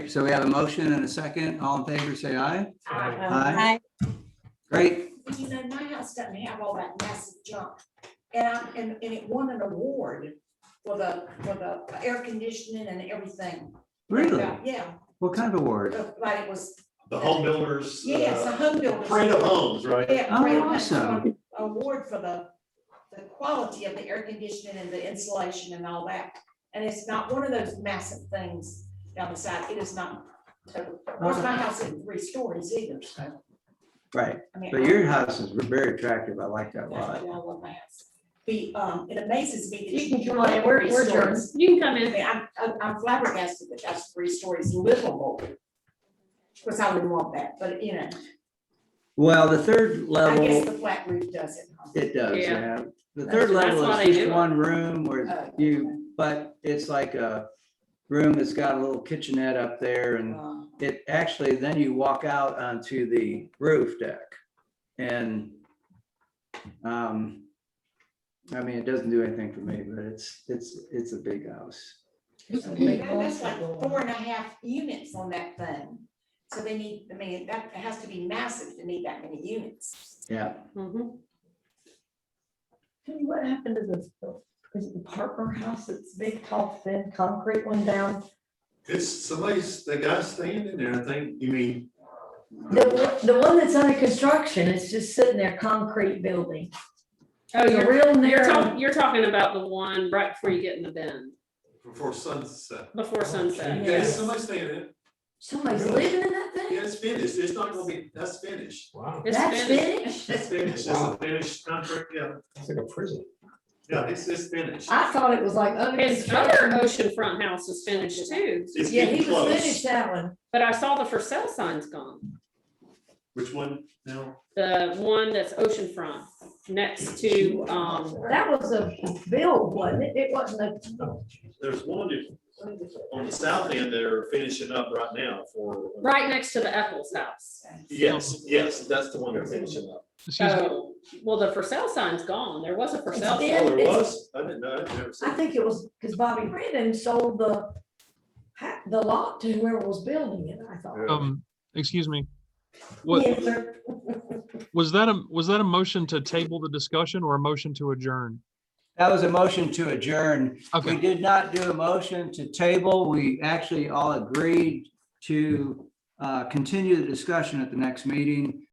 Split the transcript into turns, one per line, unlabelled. So we have a motion and a second. All in favor, say aye.
Aye.
Great.
You know, my house doesn't have all that massive junk. And I, and, and it won an award for the, for the air conditioning and everything.
Really?
Yeah,
What kind of award?
like it was,
The home builders.
yes, a
uh,
home builder.
Parade of homes, right?
Yeah,
Oh,
Parade of Homes
awesome.
Award for the, the quality of the air conditioning and the insulation and all that. And it's not one of those massive things down the side. It is not. total. Of course, my house isn't three stories either, so.
Right.
I mean,
But your house is very attractive. I like that a lot.
Definitely, I love my house. The, um, it amazes me that
You
you
can
can
come on,
live
in,
three
we're, we're adjourned.
stories.
You can come
I
in.
mean, I'm, I'm- I'm flabbergasted that that's three stories livable. Of course, I wouldn't want that, but you know,
Well, the third
I guess
level,
the flat roof does it. huh?
Uh, it does,
Yeah.
yeah. The
That's-
third level
that's why
is
they
just
do it.
one room where
Uh,
you, but it's like a room that's got a little kitchenette up there and
uh,
it actually, then you walk out onto the roof deck and um, I mean, it doesn't do anything for me, but it's, it's, it's a big house.
Yeah, That's like four and a half units on that thing. So they need, I mean, that has to be massive to need that many units.
Yeah.
Mhm.
Tell me What happened to this, is it the Parker House, it's big, tall, thin, concrete one down?
It's somebody's, the guy standing there, I think, you mean,
The, one- the one that's under construction, it's just sitting there, concrete building.
Oh,
It's a
you're,
real
you're
narrow.
talking, you're talking about the one right before you get in the bend,
before sunset.
before sunset.
Yeah, it's somebody standing there.
Somebody's living in that
Yeah,
thing?
it's finished. It's not gonna be, that's finished.
Wow,
It's
That's
finished.
finished?
It's finished. It's a finished contract. Yeah,
it's like a prison.
yeah, it's, it's finished.
I thought it was like under
His other
construction.
oceanfront house is finished too,
It's
Yeah,
getting
he was
close.
finished that one.
but I saw the for sale sign's gone.
Which one now?
The one that's oceanfront next to, um,
That was a build, wasn't it? It wasn't a,
There's one on the south end they're finishing up right now for.
right next to the Ethel's house.
Yes, yes, that's the one they're finishing up.
Excuse me,
So, well, the for sale sign's gone. There was a for
It's
sale. sign.
dead.
Oh, there
it's-
was? I didn't know. I've never seen.
I
it.
think it was, because Bobby Redden sold the, ha- the lot to whoever was building it, I thought.
um, excuse me. What,
Yes, sir.
was that a, was that a motion to table the discussion or a motion to adjourn?
That was a motion to adjourn. We
Okay,
did not do a motion to table. We actually all agreed to uh, continue the discussion at the next meeting.